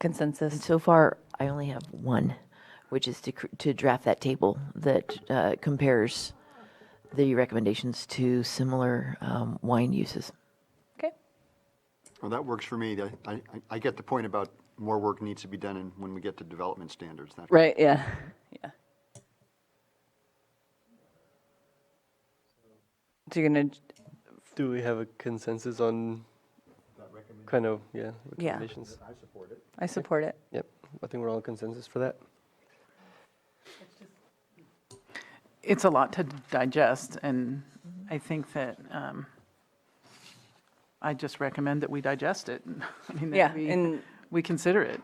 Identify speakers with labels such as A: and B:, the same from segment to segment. A: consensus.
B: So far, I only have one, which is to, cr- to draft that table that uh, compares the recommendations to similar um, wine uses.
A: Okay.
C: Well, that works for me. I- I, I get the point about more work needs to be done and when we get to development standards. that-
A: Right. Yeah. Yeah. So you're gonna.
D: Do we have a consensus on kind of, yeah,
A: Yeah.
D: recommendations?
A: I support it.
D: Yep, I think we're all in consensus for that.
E: it's a lot to digest, and I think that um, I just recommend that we digest it. I mean, that
A: Yeah,
E: we-
A: and-
E: We consider it.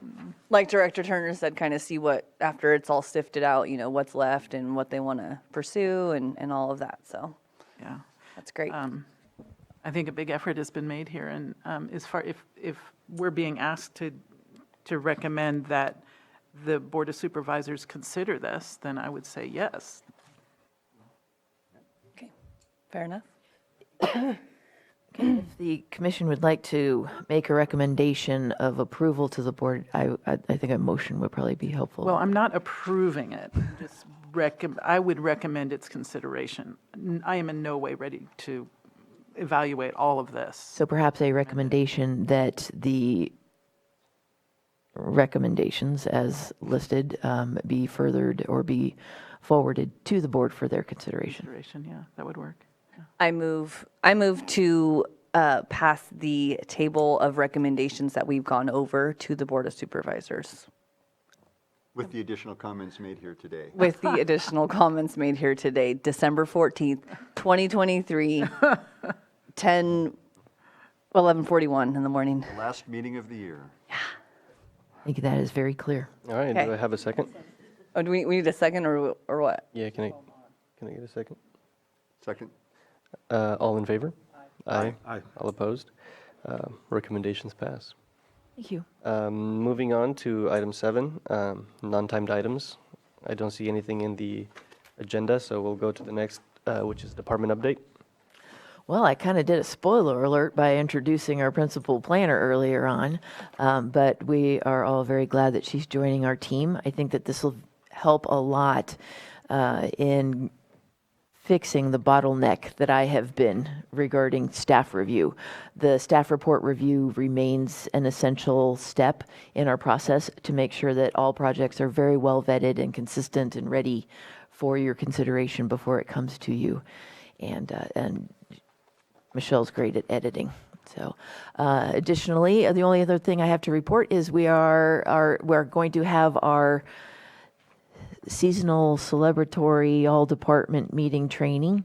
A: Like Director Turner said, kind of see what after it's all sifted out, you know, what's left and what they want to pursue and and all of that. So
E: Yeah. um,
A: that's great.
E: I think a big effort has been made here, and um, as far, if, if we're being asked to, to recommend that the Board of Supervisors consider this, then I would say yes.
A: okay. Fair enough.
B: If the commission would like to make a recommendation of approval to the board, I, I, I think a motion would probably be helpful.
E: Well, I'm not approving it, just recom, I would recommend its consideration. N- I am in no way ready to evaluate all of this.
B: So perhaps a recommendation that the recommendations as listed um, be furthered or be forwarded to the board for their consideration.
E: Consideration, yeah, that would work.
A: I move, I move to uh, pass the table of recommendations that we've gone over to the Board of Supervisors
C: With the additional comments made here today.
A: with the additional comments made here today, December 14th, 2023, 10, 11:41 in the morning.
C: Last meeting of the year.
B: I think that is very clear.
D: All right,
A: Okay.
D: do I have a second?
A: Oh, do we, we need a second or, or what?
D: Yeah, can I, can I get a second?
C: Second?
D: Uh, all in favor? Aye.
C: Aye.
D: All opposed? Uh, recommendations pass.
B: Thank you.
D: Um, moving on to item seven, um, non-timed items. I don't see anything in the agenda, so we'll go to the next, uh, which is department update.
B: Well, I kind of did a spoiler alert by introducing our principal planner earlier on, um, but we are all very glad that she's joining our team. I think that this will help a lot uh, in fixing the bottleneck that I have been regarding staff review. The staff report review remains an essential step in our process to make sure that all projects are very well vetted and consistent and ready for your consideration before it comes to you. And, uh, and Michelle's great at editing. So, uh, additionally, uh, the only other thing I have to report is we are, are we're going to have our seasonal celebratory all department meeting training.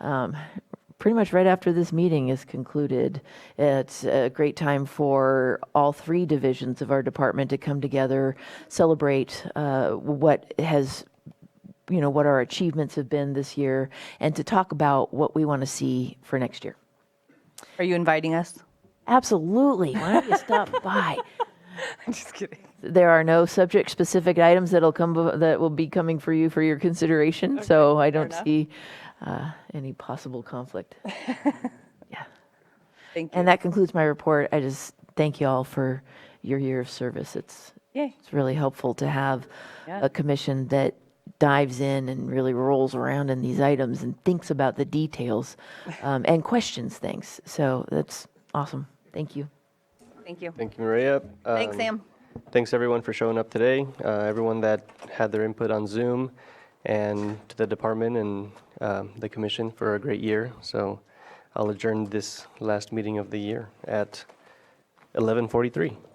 B: Um, pretty much right after this meeting is concluded, it's a great time for all three divisions of our department to come together, celebrate uh, what has you know what our achievements have been this year and to talk about what we want to see for next year
A: Are you inviting us?
B: absolutely why don't you stop by
A: I'm just kidding.
B: there are no subject specific items that'll come bef- that will be coming for you for your consideration so i don't
A: enough.
B: see uh, any possible conflict yeah
A: Thank you.
B: and that concludes my report i just thank you all for your year of service it's
A: Yay.
B: it's really helpful to have
A: Yeah.
B: a commission that dives in and really rolls around in these items and thinks about the details um, and questions things. So that's awesome. Thank you.
A: Thank you.
D: Thank you, Maria.
A: Thanks,
D: Um,
A: Sam.
D: Thanks everyone for showing up today, uh, everyone that had their input on Zoom, and to the department and um, the commission for a great year. So I'll adjourn this last meeting of the year at 11:43.